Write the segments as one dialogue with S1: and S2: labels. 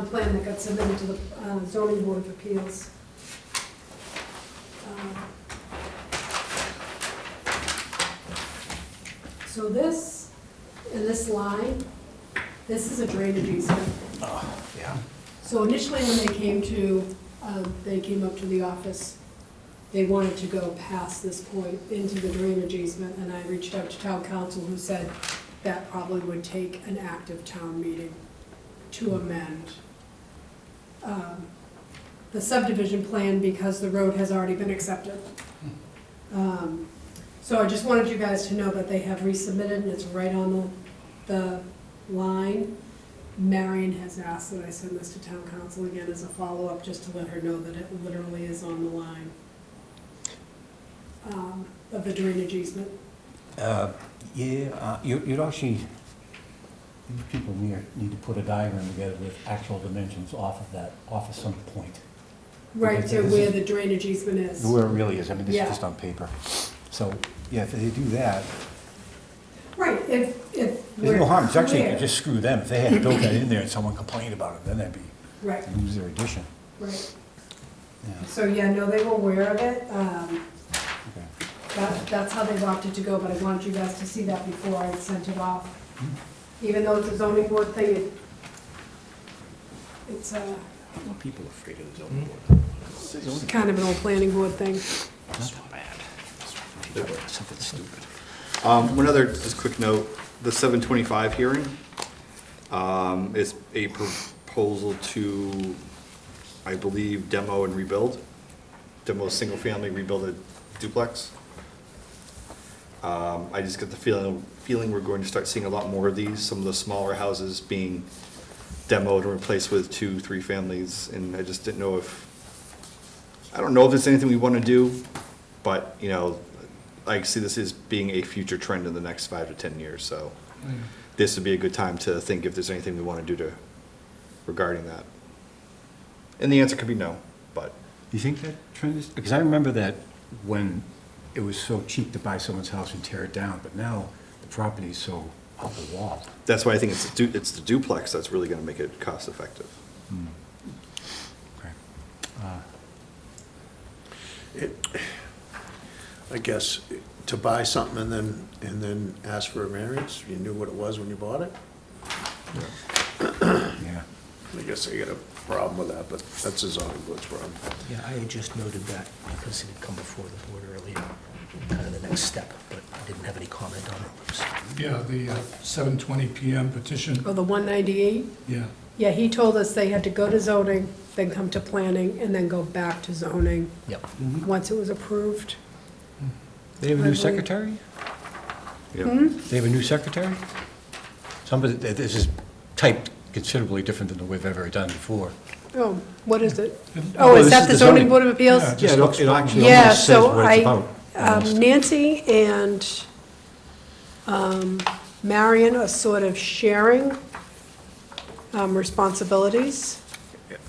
S1: plan that got submitted to the uh, zoning board of appeals. Um, So this, and this line, this is a drainage easement.
S2: Yeah.
S1: So initially, when they came to, um, they came up to the office, they wanted to go past this point into the drainage easement, and I reached out to town council, who said that probably would take an active town meeting to amend. um, The subdivision plan, because the road has already been accepted. Um, So I just wanted you guys to know that they have resubmitted, and it's right on the, the line. Marion has asked that I send this to town council again as a follow-up, just to let her know that it literally is on the line um, of the drainage easement.
S2: Uh, Yeah, uh, you- you'd actually, you people near- need to put a diagram together with actual dimensions off of that, off of some point.
S1: Right to
S2: Okay, this
S1: where
S2: is-
S1: the drainage easement is.
S2: Where it really is, I mean, this
S1: Yeah.
S2: is just on paper. So, yeah, if they do that,
S1: Right, if, if.
S2: there's no
S1: we're
S2: harm, it's actually, you
S1: clear-
S2: just screw them. If they had built that in there and someone complained about it, then that'd be,
S1: Right,
S2: lose their addition.
S1: right.
S2: Yeah,
S1: So, yeah, no, they were aware of it. Um,
S2: okay.
S1: That, that's how they've opted to go, but I wanted you guys to see that before I sent it off.
S2: Hmm.
S1: Even though it's a zoning board thing, it, it's uh, a,
S3: Well, people are afraid of the zoning
S2: Hmm?
S3: board.
S1: it's kind of an old planning board thing.
S3: That's not bad. People are Something stupid.
S4: Um, One other, just quick note, the 725 hearing um, is a proposal to, I believe, demo and rebuild, demo a single-family, rebuild a duplex. Um, I just get the feeling, feeling we're going to start seeing a lot more of these, some of the smaller houses being demoed and replaced with two, three families, and I just didn't know if I don't know if it's anything we want to do, but, you know, I see this as being a future trend in the next five to 10 years, so this would be a good time to think if there's anything we want to do to, regarding that. And the answer could be no, but,
S2: You think that trend is, because I remember that when it was so cheap to buy someone's house and tear it down, but now the property is so up the wall.
S4: that's why I think it's, the du- it's the duplex that's really going to make it cost-effective.
S2: Okay.
S5: I guess, to buy something and then, and then ask for a variance, you knew what it was when you bought it?
S2: Yeah.
S5: I guess I got a problem with that, but that's a zoning board's problem.
S3: Yeah, I had just noted that because it had come before the board earlier, kind of the next step, but I didn't have any comment on it. so.
S6: Yeah, the uh, 7:20 PM petition,
S1: Oh, the 198?
S6: yeah.
S1: Yeah, he told us they had to go to zoning, then come to planning, and then go back to zoning,
S3: Yep.
S2: Mm-hmm.
S1: once it was approved.
S2: They have a
S1: I
S2: new
S1: believe-
S2: secretary?
S4: Yeah.
S2: They have a new secretary? Somebody, th- this is typed considerably different than the we've ever done before.
S1: Oh, what is it?
S2: Oh,
S1: Oh, is
S2: this
S1: that
S2: is
S1: the
S2: the
S1: zoning
S2: zoning.
S1: board of appeals?
S6: Yeah, it
S2: Yeah, it
S6: looks
S2: it actually
S1: Yeah,
S2: almost says
S1: so
S2: what
S1: I-
S2: it's about.
S1: Um,
S2: almost.
S1: Nancy and um, Marion are sort of sharing um, responsibilities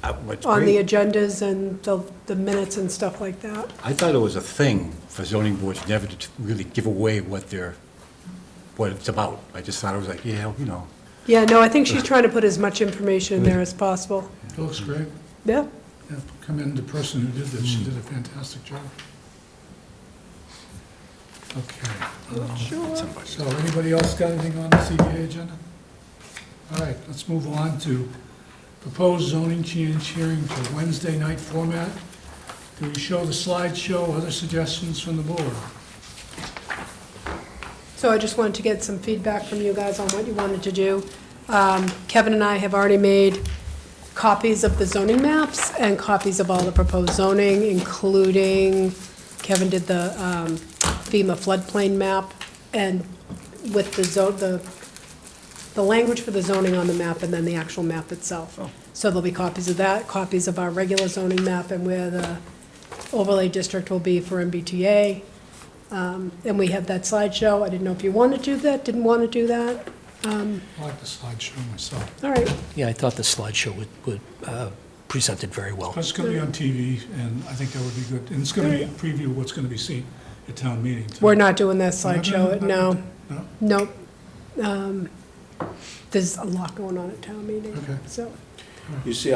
S2: Uh, what's
S1: on the
S2: great-
S1: agendas and the the minutes and stuff like that.
S2: I thought it was a thing for zoning boards never to t- really give away what they're, what it's about. I just thought it was like, yeah, you know,
S1: Yeah, no, I think she's trying to put as much information in there
S2: Mm-hmm.
S1: as possible.
S6: It looks great.
S1: Yeah,
S6: Yeah, Commend the person who did this, she did a fantastic job. Okay,
S1: sure.
S6: so anybody else got anything on the CBA agenda? All right, let's move on to proposed zoning change hearing to Wednesday night format. Do we show the slideshow, other suggestions from the board?
S1: So I just wanted to get some feedback from you guys on what you wanted to do. Um, Kevin and I have already made copies of the zoning maps and copies of all the proposed zoning, including, Kevin did the um, FEMA floodplain map, and with the zo, the, the language for the zoning on the map and then the actual map itself. So there'll be copies of that, copies of our regular zoning map and where the overlay district will be for MBTA. Um, And we have that slideshow. I didn't know if you want to do that, didn't want to do that.
S6: I like the slideshow myself.
S1: All right,
S3: Yeah, I thought the slideshow would, would, uh, presented very well.
S6: It's going to be on TV, and I think that would be good. And it's going to be a preview of what's going to be seen at town meeting. too.
S1: we're not doing that
S6: We're not doing
S1: slideshow,
S6: that?
S1: no,
S6: No?
S1: nope. Um, There's a lot going on at town meeting,
S6: Okay.
S1: so.
S5: You see